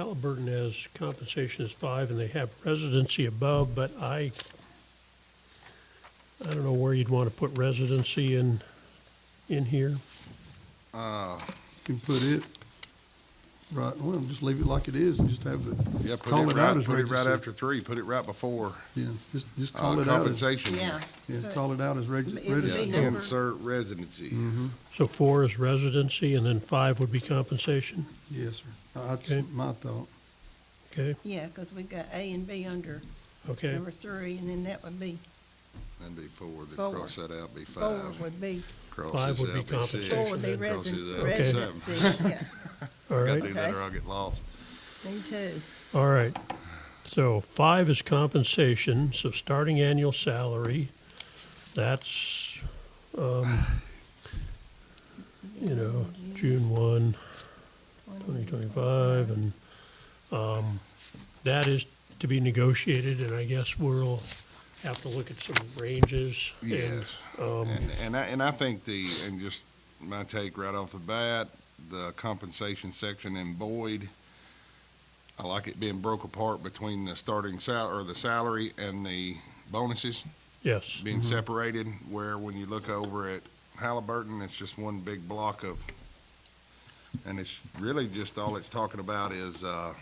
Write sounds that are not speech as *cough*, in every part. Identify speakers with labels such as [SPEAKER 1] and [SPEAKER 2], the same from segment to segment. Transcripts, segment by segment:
[SPEAKER 1] Halliburton has compensation is five, and they have residency above, but I, I don't know where you'd want to put residency in, in here.
[SPEAKER 2] can put it right, well, just leave it like it is and just have it.
[SPEAKER 3] Yeah, put
[SPEAKER 2] call
[SPEAKER 3] it right,
[SPEAKER 2] as
[SPEAKER 3] put it right
[SPEAKER 2] registered.
[SPEAKER 3] after three, put it right before,
[SPEAKER 2] Yeah, just, just
[SPEAKER 3] uh,
[SPEAKER 2] call it out as,
[SPEAKER 3] compensation.
[SPEAKER 4] Yeah,
[SPEAKER 2] yeah, call it out as reg-
[SPEAKER 4] It would be
[SPEAKER 3] Yeah,
[SPEAKER 2] registered.
[SPEAKER 4] number-
[SPEAKER 3] Insert residency.
[SPEAKER 2] Mm-hmm.
[SPEAKER 1] So four is residency, and then five would be compensation,
[SPEAKER 2] Yes, sir. Uh, That's
[SPEAKER 1] Okay.
[SPEAKER 2] my thought.
[SPEAKER 1] okay?
[SPEAKER 4] yeah, because we've got A and B under
[SPEAKER 1] Okay,
[SPEAKER 4] number three, and then that would be,
[SPEAKER 3] And be four, then
[SPEAKER 4] Four.
[SPEAKER 3] cross that out, be
[SPEAKER 4] four
[SPEAKER 3] five.
[SPEAKER 4] would be,
[SPEAKER 3] Cross
[SPEAKER 1] Five
[SPEAKER 3] this
[SPEAKER 1] would be
[SPEAKER 3] out, six,
[SPEAKER 4] four would
[SPEAKER 1] compensation.
[SPEAKER 4] be
[SPEAKER 3] then cross this
[SPEAKER 4] resident,
[SPEAKER 3] out,
[SPEAKER 1] Okay.
[SPEAKER 3] seven.
[SPEAKER 4] residency, *laughs*
[SPEAKER 1] all
[SPEAKER 4] yeah,
[SPEAKER 3] Gotta
[SPEAKER 1] right.
[SPEAKER 3] do that
[SPEAKER 4] Okay.
[SPEAKER 3] or I'll get lost.
[SPEAKER 4] me too.
[SPEAKER 1] All right. So five is compensation, so starting annual salary, that's, um, you know, June one, twenty twenty-five, and, um, that is to be negotiated, and I guess we'll have to look at some ranges. and- um,
[SPEAKER 3] Yes. And, and I, and I think the, and just my take right off the bat, the compensation section in Boyd, I like it being broke apart between the starting sal, or the salary and the bonuses.
[SPEAKER 1] Yes,
[SPEAKER 3] being separated, where when you look over at Halliburton, it's just one big block of, and it's really just all it's talking about is, uh,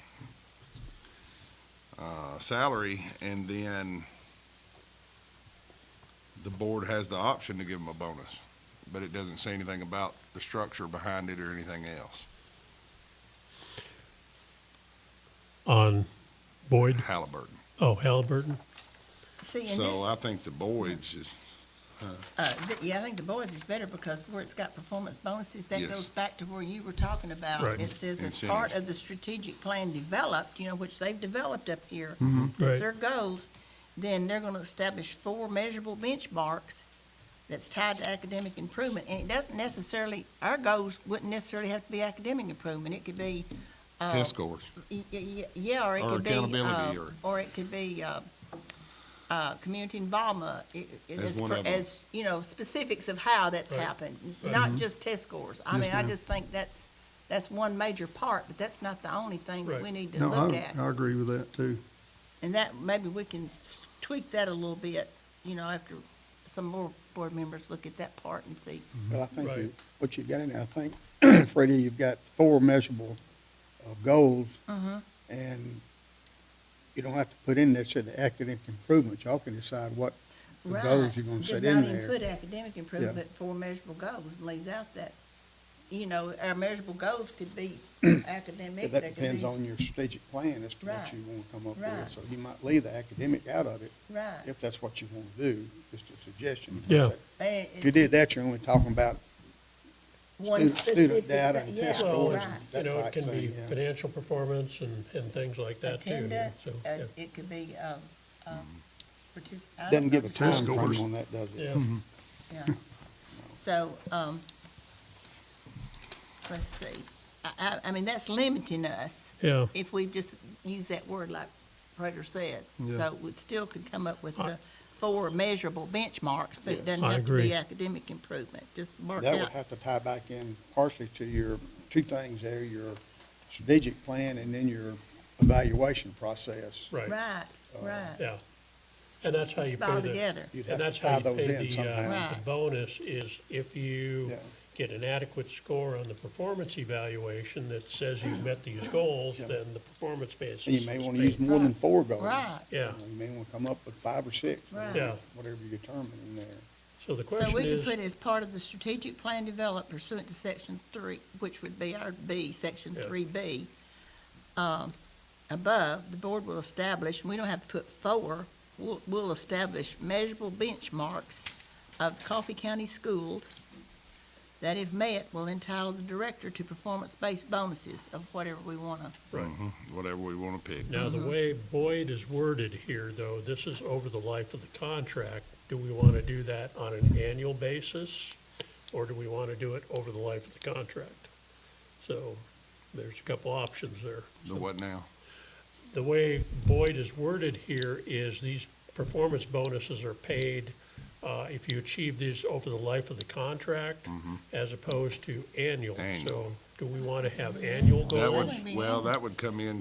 [SPEAKER 3] uh, salary, and then the board has the option to give them a bonus, but it doesn't say anything about the structure behind it or anything else.
[SPEAKER 1] on Boyd,
[SPEAKER 3] Halliburton.
[SPEAKER 1] oh, Halliburton,
[SPEAKER 4] See, and this,
[SPEAKER 3] So I think the Boyd's is,
[SPEAKER 4] uh, th- yeah, I think the boys is better because where it's got performance bonuses, that
[SPEAKER 3] Yes.
[SPEAKER 4] goes back to where you were talking about.
[SPEAKER 1] Right.
[SPEAKER 4] It says as part of the strategic plan developed, you know, which they've developed up here,
[SPEAKER 1] Mm-hmm. right.
[SPEAKER 4] It's their goals, then they're gonna establish four measurable benchmarks that's tied to academic improvement, and it doesn't necessarily, our goals wouldn't necessarily have to be academic improvement, it could be, uh,
[SPEAKER 3] test scores,
[SPEAKER 4] y- y- y- yeah, or it
[SPEAKER 3] Or
[SPEAKER 4] could be,
[SPEAKER 3] accountability,
[SPEAKER 4] uh,
[SPEAKER 3] or-
[SPEAKER 4] or it could be, uh, uh, community involvement, i- i-
[SPEAKER 3] As
[SPEAKER 4] as,
[SPEAKER 3] one
[SPEAKER 4] per-
[SPEAKER 3] of 'em.
[SPEAKER 4] as, you know, specifics of how that's
[SPEAKER 1] Right. Mm-hmm.
[SPEAKER 4] happened, not just test scores. I
[SPEAKER 2] Yes,
[SPEAKER 4] mean, I
[SPEAKER 2] ma'am.
[SPEAKER 4] just think that's, that's one major part, but that's not the only thing that
[SPEAKER 1] Right.
[SPEAKER 4] we need to
[SPEAKER 2] No,
[SPEAKER 4] look
[SPEAKER 2] I,
[SPEAKER 4] at.
[SPEAKER 2] I agree with that too.
[SPEAKER 4] And that, maybe we can s- tweak that a little bit, you know, after some more board members look at that part and see.
[SPEAKER 5] But I think
[SPEAKER 1] Right.
[SPEAKER 5] you- what you've got in there, I think, *clears throat* Freddie, you've got four measurable uh, goals,
[SPEAKER 4] Mm-hmm.
[SPEAKER 5] and you don't have to put in necessarily the academic improvement. Y'all can decide what the goals you're gonna
[SPEAKER 4] Right.
[SPEAKER 5] set
[SPEAKER 4] Did
[SPEAKER 5] in
[SPEAKER 4] not
[SPEAKER 5] there.
[SPEAKER 4] include academic improvement, but four measurable goals, and lays out that, you know, our measurable goals could be
[SPEAKER 5] *clears throat*
[SPEAKER 4] academic,
[SPEAKER 5] But
[SPEAKER 4] they
[SPEAKER 5] That
[SPEAKER 4] could
[SPEAKER 5] depends
[SPEAKER 4] be-
[SPEAKER 5] on your strategic plan as to
[SPEAKER 4] Right.
[SPEAKER 5] what you wanna come up
[SPEAKER 4] Right.
[SPEAKER 5] with. So you might leave the academic out of it,
[SPEAKER 4] Right.
[SPEAKER 5] if that's what you wanna do, just a suggestion.
[SPEAKER 1] Yeah.
[SPEAKER 4] And
[SPEAKER 5] If you did that, you're only talking about
[SPEAKER 4] one
[SPEAKER 5] student- student
[SPEAKER 4] specific
[SPEAKER 5] data
[SPEAKER 4] thing-
[SPEAKER 5] and
[SPEAKER 4] yeah,
[SPEAKER 5] test
[SPEAKER 1] Well,
[SPEAKER 5] scores
[SPEAKER 4] right.
[SPEAKER 5] and
[SPEAKER 1] You
[SPEAKER 5] that
[SPEAKER 1] know, it
[SPEAKER 5] type
[SPEAKER 1] can be
[SPEAKER 5] thing, yeah.
[SPEAKER 1] financial performance and, and things like that too. you know,
[SPEAKER 4] Attendance,
[SPEAKER 1] so,
[SPEAKER 4] uh,
[SPEAKER 1] yeah.
[SPEAKER 4] it could be, um, um, partic- I don't
[SPEAKER 5] Doesn't give a
[SPEAKER 4] know.
[SPEAKER 2] Test
[SPEAKER 5] time frame
[SPEAKER 2] scores.
[SPEAKER 5] on that, does it?
[SPEAKER 1] Yeah,
[SPEAKER 4] Mm-hmm. Yeah. So, um, let's see, I, I, I mean, that's limiting us
[SPEAKER 1] yeah.
[SPEAKER 4] if we just use that word like Prater said.
[SPEAKER 2] Yeah.
[SPEAKER 4] So we still could come up with the four measurable benchmarks, but it doesn't
[SPEAKER 1] I
[SPEAKER 4] have to
[SPEAKER 1] agree.
[SPEAKER 4] be academic improvement, just mark
[SPEAKER 5] That would
[SPEAKER 4] out.
[SPEAKER 5] have to tie back in partially to your, two things there, your strategic plan and then your evaluation process.
[SPEAKER 1] Right,
[SPEAKER 4] Right,
[SPEAKER 5] Uh,
[SPEAKER 4] right,
[SPEAKER 1] yeah. And that's how you
[SPEAKER 4] It's
[SPEAKER 1] pay
[SPEAKER 4] all
[SPEAKER 1] the,
[SPEAKER 4] together,
[SPEAKER 5] You'd
[SPEAKER 1] and
[SPEAKER 5] have
[SPEAKER 1] that's
[SPEAKER 5] to
[SPEAKER 1] how
[SPEAKER 5] tie
[SPEAKER 1] you
[SPEAKER 5] those
[SPEAKER 1] pay the,
[SPEAKER 5] in
[SPEAKER 1] uh,
[SPEAKER 5] somehow.
[SPEAKER 1] the
[SPEAKER 4] Right.
[SPEAKER 1] bonus is if you
[SPEAKER 5] Yeah.
[SPEAKER 1] get an adequate score on the performance evaluation that says you've met these goals,
[SPEAKER 5] Yeah.
[SPEAKER 1] then the performance basis
[SPEAKER 5] And
[SPEAKER 1] is
[SPEAKER 5] you may want to use
[SPEAKER 1] paid.
[SPEAKER 5] more than
[SPEAKER 4] Right.
[SPEAKER 5] four goals.
[SPEAKER 4] right.
[SPEAKER 1] Yeah,
[SPEAKER 5] You may want to come up with five or six, or
[SPEAKER 4] Right.
[SPEAKER 1] Yeah.
[SPEAKER 5] whatever you determine in there.
[SPEAKER 1] so the
[SPEAKER 4] So
[SPEAKER 1] question
[SPEAKER 4] we could
[SPEAKER 1] is,
[SPEAKER 4] put as part of the strategic plan developed pursuant to section three, which would be our B, section
[SPEAKER 1] Yeah.
[SPEAKER 4] three B. um, Above, the board will establish, and we don't have to put four, we'll, we'll establish measurable benchmarks of Coffee County schools that if met, will entitle the director to performance-based bonuses of whatever we wanna,
[SPEAKER 1] right,
[SPEAKER 3] Mm-hmm. whatever we want to pick.
[SPEAKER 1] now the way Boyd is worded here, though, this is over the life of the contract. Do we want to do that on an annual basis, or do we want to do it over the life of the contract? So there's a couple options there.
[SPEAKER 3] The what now?
[SPEAKER 1] the way Boyd is worded here is these performance bonuses are paid uh, if you achieve these over the life of the contract as opposed to annual.
[SPEAKER 3] Mm-hmm. Annual.
[SPEAKER 1] So do we want to have annual
[SPEAKER 3] That
[SPEAKER 1] goals?
[SPEAKER 4] would
[SPEAKER 3] would,
[SPEAKER 4] be
[SPEAKER 3] well,
[SPEAKER 4] annual.
[SPEAKER 3] that would come in